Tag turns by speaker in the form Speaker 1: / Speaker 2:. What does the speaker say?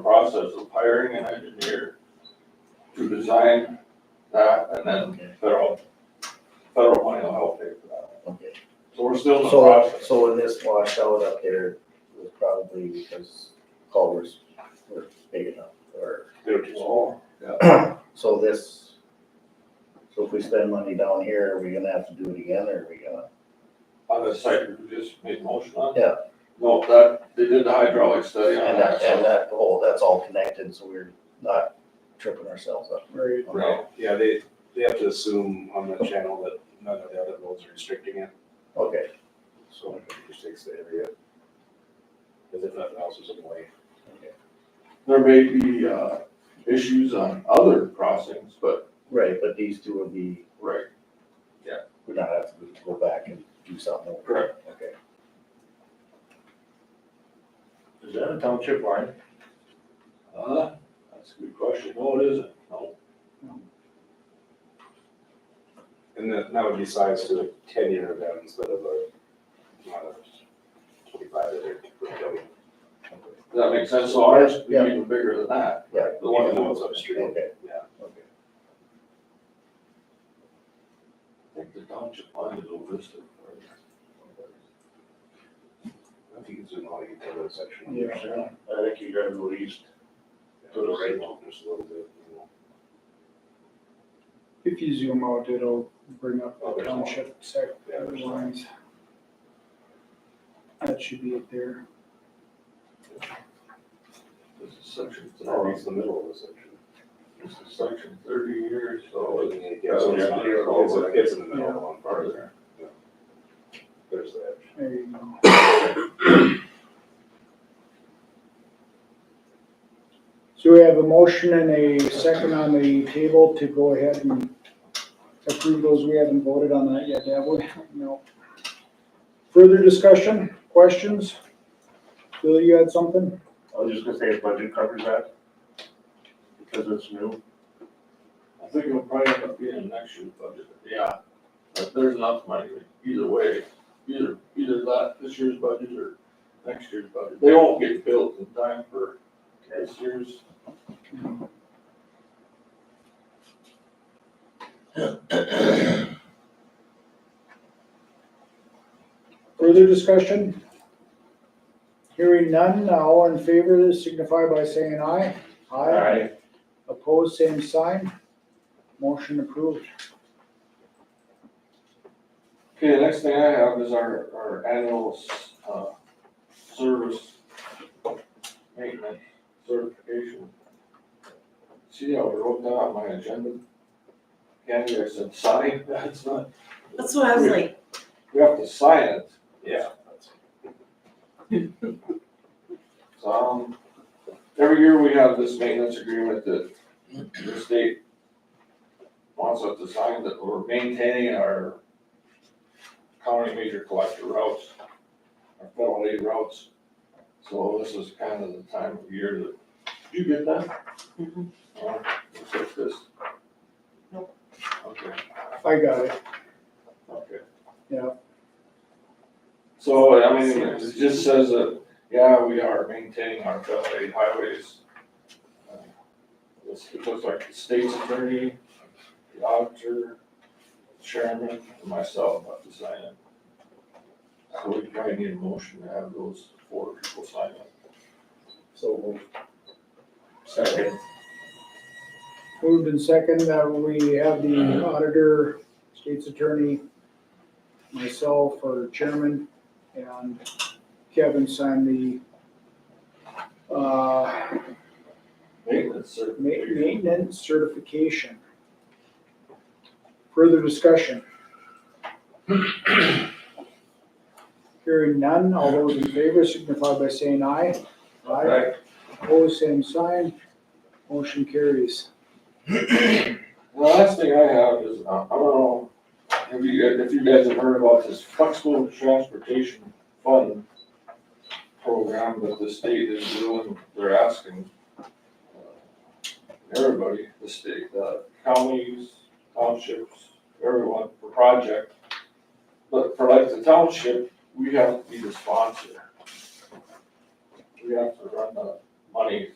Speaker 1: process of hiring an engineer to design that, and then
Speaker 2: Okay,
Speaker 1: federal, federal money will help pay for that.
Speaker 2: okay.
Speaker 1: So we're still in the
Speaker 2: So,
Speaker 1: process.
Speaker 2: so when this washed out up there, it was probably because culverts were big enough, or,
Speaker 1: They were too small.
Speaker 2: so this, so if we spend money down here, are we gonna have to do it again, or are we gonna?
Speaker 1: On the site, we just made motion on.
Speaker 2: Yeah.
Speaker 1: No, that, they did the hydraulic study on
Speaker 2: And that,
Speaker 1: that.
Speaker 2: and
Speaker 1: so-
Speaker 2: that, oh, that's all connected, so we're not tripping ourselves up.
Speaker 3: Right.
Speaker 1: Right.
Speaker 3: Yeah, they, they have to assume on that channel that none of the other roads are restricting it,
Speaker 2: Okay,
Speaker 3: so it restricts the area. Cause if nothing else is in the way.
Speaker 2: okay,
Speaker 1: There may be, uh, issues on other crossings, but,
Speaker 2: right, but these two would be,
Speaker 1: right,
Speaker 2: we're not have to go back and do something. over.
Speaker 1: Correct.
Speaker 2: Okay.
Speaker 4: Is that a township line?
Speaker 1: Uh, that's a good question. No, it isn't. No.
Speaker 3: And that, that would be sized to a ten year event instead of a, not a twenty-five year.
Speaker 1: Does that make sense? So ours is
Speaker 2: Yeah.
Speaker 1: even bigger than that.
Speaker 2: Right.
Speaker 1: The one
Speaker 3: Even though
Speaker 1: that was
Speaker 3: it's
Speaker 1: up
Speaker 3: upstream.
Speaker 2: Okay.
Speaker 3: Yeah.
Speaker 2: Okay.
Speaker 1: I think the township line is over this.
Speaker 3: I think it's in all you cover that section.
Speaker 4: Yes, sir. I think you gotta go east.
Speaker 3: To the right, just a little bit, you know.
Speaker 5: If you zoom out, it'll bring up the township sec
Speaker 3: Oh, Yeah, there's one.
Speaker 5: lines. That should be it there.
Speaker 1: This is section
Speaker 3: It's
Speaker 4: Oh,
Speaker 3: not
Speaker 1: thirty,
Speaker 3: reached the middle of the section.
Speaker 1: this is section thirty years,
Speaker 3: So
Speaker 1: so
Speaker 3: it- it gets-
Speaker 1: Oh, Yeah,
Speaker 3: it's not-
Speaker 1: yeah.
Speaker 3: it's in- it's in the middle of one
Speaker 1: it's part of
Speaker 3: part,
Speaker 1: there.
Speaker 3: there's the edge.
Speaker 5: There you go. So we have a motion and a second on the table to go ahead and approve those. We haven't voted on that yet, have we? No. Further discussion, questions? Bill, you had something?
Speaker 4: I was just gonna say, if budget covers that, because it's new.
Speaker 1: I think it'll probably end up being next year's budget. Yeah. But there's enough money either way, either, either that, this year's budget or next year's budget. They won't get built in time for this year's.
Speaker 5: Further discussion? Hearing none, all in favor, signify by saying aye. Opposed, same sign. Motion approved.
Speaker 1: Okay, the next thing I have is our, our annual, uh, service maintenance certification. See how I wrote that on my agenda? Candy, I said sign, that's not,
Speaker 6: That's what I was like,
Speaker 1: we have to sign it.
Speaker 3: Yeah, that's,
Speaker 1: So, um, every year we have this maintenance agreement that the state wants us to sign that we're maintaining our county major collector routes, our federal aid routes. So this is kind of the time of year that, you get that?
Speaker 6: Mhm.
Speaker 1: Uh, Looks like this.
Speaker 6: Nope.
Speaker 1: Okay,
Speaker 5: I got it.
Speaker 1: okay.
Speaker 5: Yeah.
Speaker 1: So, I mean, it just says that, yeah, we are maintaining our federal aid highways. Uh, This, it looks like the state's attorney, the auditor, chairman, and myself have to sign it. So we probably need a motion to have those four people sign it.
Speaker 2: So we'll
Speaker 4: Second.
Speaker 5: Moved in second that we have the auditor, state's attorney, myself or chairman, and Kevin sign the uh,
Speaker 1: Maintenance
Speaker 5: ma-
Speaker 1: certification.
Speaker 5: maintenance certification. Further discussion? Hearing none, all those in favor signify by saying aye.
Speaker 1: Right.
Speaker 5: Opposed, same sign. Motion carries.
Speaker 1: The last thing I have is, uh, I don't know, if you, guys- if you guys have heard about this flexible transportation fund program that the state is doing, they're asking uh, everybody, the state, the counties, townships, everyone, for project. But for like the township, we have to be the sponsor. We have to run the money